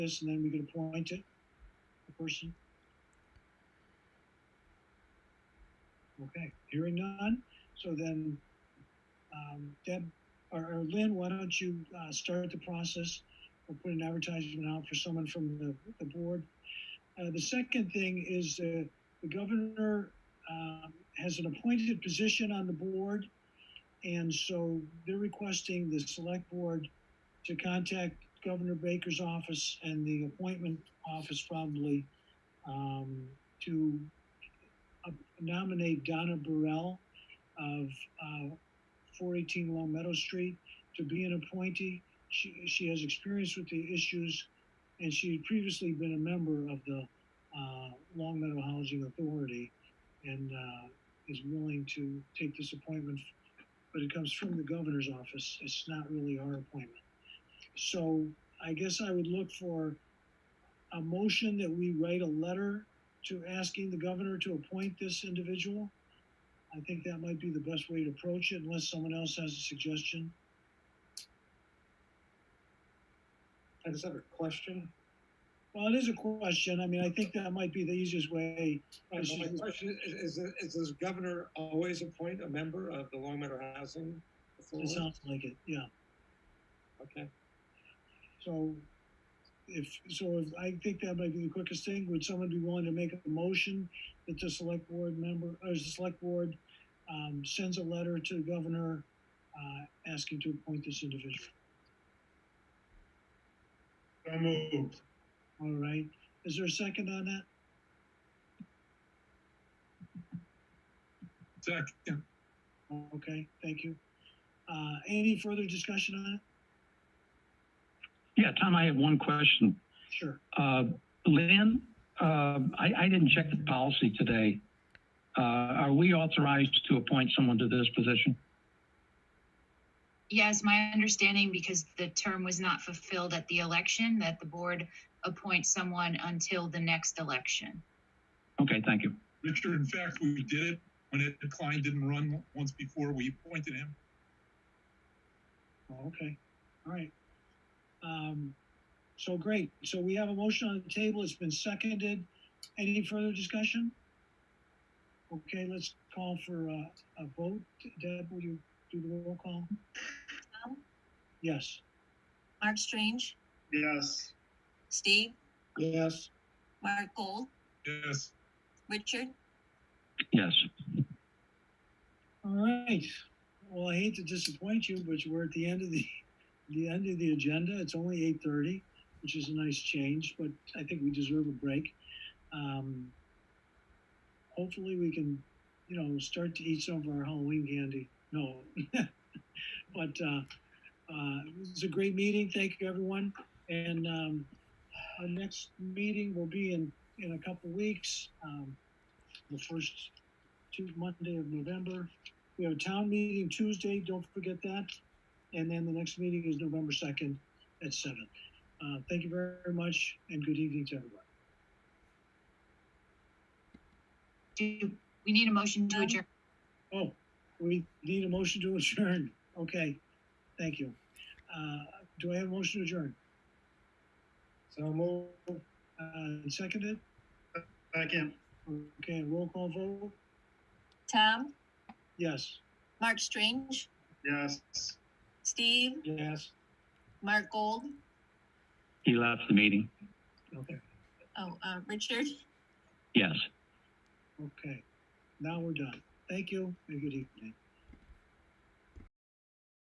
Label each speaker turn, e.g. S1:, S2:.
S1: this, and then we could appoint it, the person. Okay, hearing none, so then, um, Deb, or, or Lynn, why don't you, uh, start the process? We'll put an advertisement out for someone from the, the board. Uh, the second thing is, uh, the governor, um, has an appointed position on the board. And so they're requesting the select board to contact Governor Baker's office and the appointment office probably um, to uh, nominate Donna Burrell of uh, 418 Long Meadow Street to be an appointee. She, she has experience with the issues and she had previously been a member of the uh, Long Meadow Housing Authority and uh, is willing to take this appointment, but it comes from the governor's office. It's not really our appointment. So I guess I would look for a motion that we write a letter to asking the governor to appoint this individual. I think that might be the best way to approach it unless someone else has a suggestion.
S2: I just have a question.
S1: Well, it is a question. I mean, I think that might be the easiest way.
S2: My
S1: This
S2: Uh, my
S1: is-
S2: question is, is, is does governor always appoint a member of the Long Meadow Housing
S1: It
S2: Authority?
S1: sounds like it, yeah.
S2: Okay,
S1: So if, so if, I think that might be the quickest thing. Would someone be willing to make a motion that the select board member, or the select board, um, sends a letter to the governor, uh, asking to appoint this individual?
S3: So moved.
S1: All right. Is there a second on that?
S3: Second.
S1: Okay, thank you. Uh, any further discussion on it?
S4: Yeah, Tom, I have one question.
S1: Sure.
S4: Uh, Lynn, uh, I, I didn't check the policy today. Uh, are we authorized to appoint someone to this position?
S5: Yes, my understanding, because the term was not fulfilled at the election, that the board appoints someone until the next election.
S4: Okay, thank you.
S3: Richard, in fact, we did it when Ed Klein didn't run once before. We appointed him.
S1: Oh, Okay, all right. Um, so great. So we have a motion on the table. It's been seconded. Any further discussion? Okay, let's call for a, a vote. Deb, will you do the roll call?
S6: Tom?
S1: Yes.
S6: Mark Strange,
S3: Yes.
S6: Steve,
S1: Yes.
S6: Mark Gold,
S3: Yes.
S6: Richard,
S4: Yes.
S1: All right. Well, I hate to disappoint you, but we're at the end of the, the end of the agenda. It's only eight thirty, which is a nice change, but I think we deserve a break. Um, hopefully, we can, you know, start to eat some of our Halloween candy. No, but uh, uh, it was a great meeting. Thank you, everyone. And um, our next meeting will be in in a couple weeks. Um, the first to Monday of November. We have a town meeting Tuesday, don't forget that. And then the next meeting is November second at seven. Uh, thank you very much and good evening to everyone.
S5: Do we need a motion to
S6: Um,
S5: adjourn?
S1: Oh, we need a motion to adjourn. Okay, thank you. Uh, do I have a motion to adjourn?
S2: so move.
S1: Uh, seconded?
S3: Second.
S1: Okay, roll call vote?
S6: Tom,
S1: Yes.
S6: Mark Strange,
S3: Yes.
S6: Steve,
S1: Yes.
S6: Mark Gold,
S4: He left the meeting.
S1: Okay,
S6: oh, uh, Richard,
S4: Yes.
S1: okay. Now we're done. Thank you and good evening.